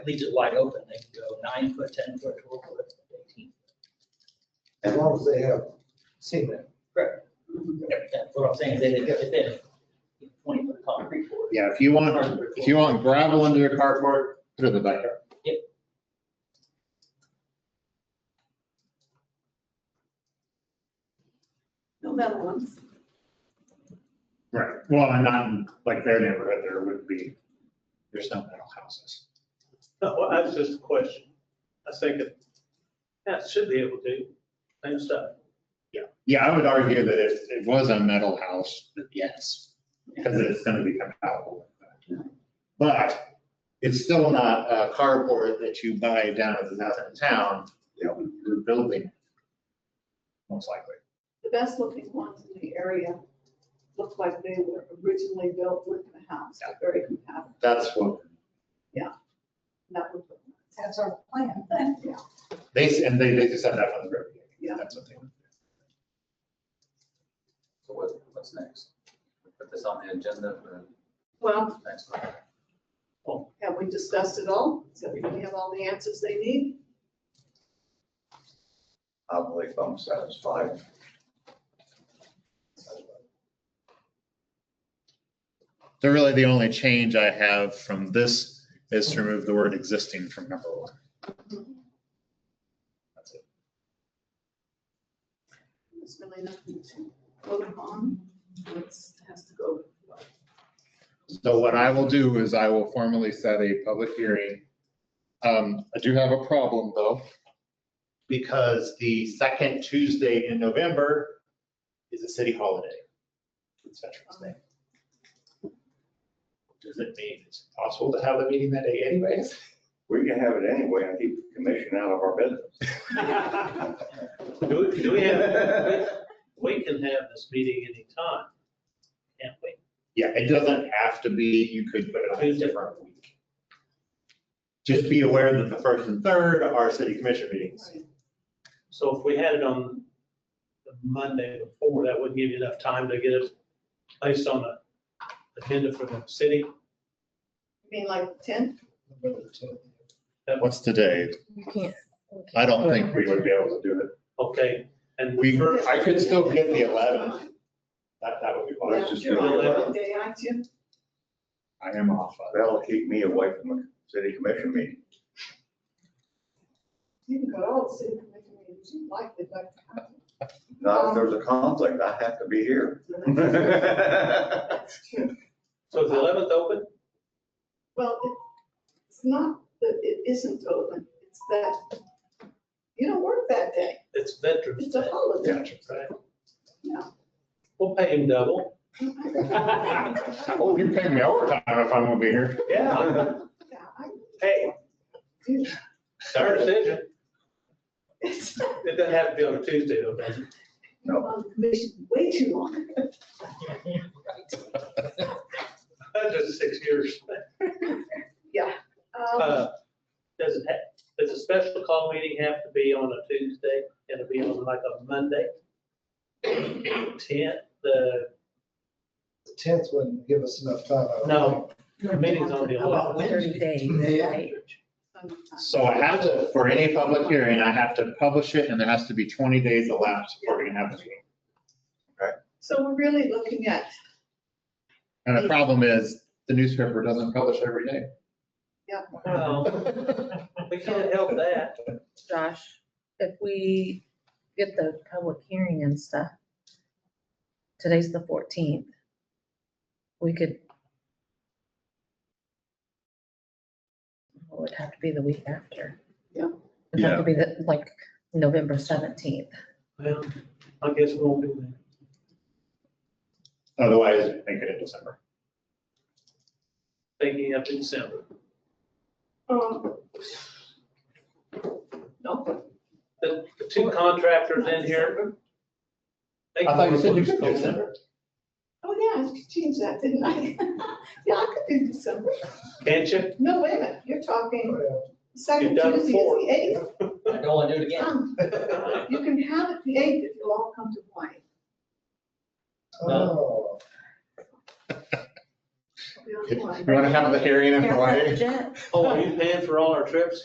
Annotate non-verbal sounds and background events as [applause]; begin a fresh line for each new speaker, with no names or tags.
leaves it wide open, they can go nine foot, ten foot, twelve foot, eighteen.
as long as they have seen it.
That's what I'm saying, they didn't get it in, twenty foot concrete floor.
Yeah, if you want, if you want gravel under your carport, put it in the backyard.
No metal ones.
Right, well, and not in, like their neighborhood, there would be, there's no metal houses.
No, well, that's just a question. I think it, yeah, it should be able to, same stuff.
Yeah, I would argue that if it was a metal house, that yes, because it's gonna be compatible. with that. But it's still not a carport that you buy down at the downtown town, you know, you're building. Most likely.
The best looking ones in the area look like they were originally built with the house, They're very compatible.
That's what
That would look nice.
That's our plan.
Yeah.
they, and they, they just have that from the river.
Yeah.
That's what they.
So what, what's next? Put this on the agenda for
Well,
next month.
have we discussed it all? Does everybody have all the answers they need?
Probably I'm satisfied.
So really, the only change I have from this is to remove the word existing from number one. That's it.
There's really nothing to vote on. It has to go.
So what I will do is I will formally set a public hearing. Um, I do have a problem, though. Because the second Tuesday in November is a city holiday. It's Veterans Day. Does it mean it's possible to have the meeting that day anyways?
We can have it anyway and keep the commission out of our business.
Do we, do we have, we can have this meeting anytime, can't we?
Yeah, it doesn't have to be, you could put it on a different week. Just be aware that the first and third are city commission meetings.
So if we had it on the Monday before, that wouldn't give you enough time to get it placed on the agenda for the city.
I mean, like ten?
What's today?
You can't.
I don't think we would be able to do it.
Okay, and.
We,
first-
I could still get the eleventh. That, that would be
Let's
fine.
just
You're
do
on
it.
that day, aren't you?
I am off.
That'll keep me away from the city commission meeting.
You can go to all the city commission meetings you like, they'd like to have. it.
Not if there's a conflict, I have to
[laughs]
be here.
So that's-
Well,
That's true.
So is the eleventh open?
Well, it- it's not that it isn't open, it's that you don't work that day.
It's Veterans
It's a
Day,
holiday.
right?
Yeah.
We'll pay him double.
Yeah,
Oh, you're paying me overtime if I'm gonna be here.
Yeah.
I
Hey,
do.
it's our decision. It doesn't have to be on a Tuesday though, does it?
No.
On the commission way too long.
That's just six years.
Um,
Uh, Does it, ha- does a special call meeting have to be on a Tuesday? Can it be on like a Monday? Ten, the
tenth wouldn't give us enough time. I don't
No.
Um,
meeting's on the
About
eleventh.
Wednesday.
Thirty days,
Yeah.
right?
sometimes.
So I have to, for any public hearing, I have to publish it and there has to be twenty days elapsed before we can have the meeting.
So we're really looking at,
And the problem is, the newspaper doesn't publish every day.
Well, we can't help that.
Josh, if we get the public hearing and stuff, today's the fourteenth. We could. Well, It would oh, have to be the week after.
Yeah.
It'd have to be the, like, November seventeenth.
Well, I guess we won't do that.
[laughs] Otherwise, make it in December.
Thinking up in December.
um, no, but
The the two contractors in here. they
I thought you said you
can-
could do December.
oh yeah, I changed that, didn't I? [laughs] Yeah, I could do December.
Can't you?
No, wait a minute, you're talking,
know.
second
You've done it
Tuesday
before.
is the eighth.
I don't want to do it again.
Um, You can have it the eighth if you all come to Hawaii.
Oh,
Yeah,
You
why?
want to have the hearing in Hawaii?
Jet.
Oh, are you paying for all our trips?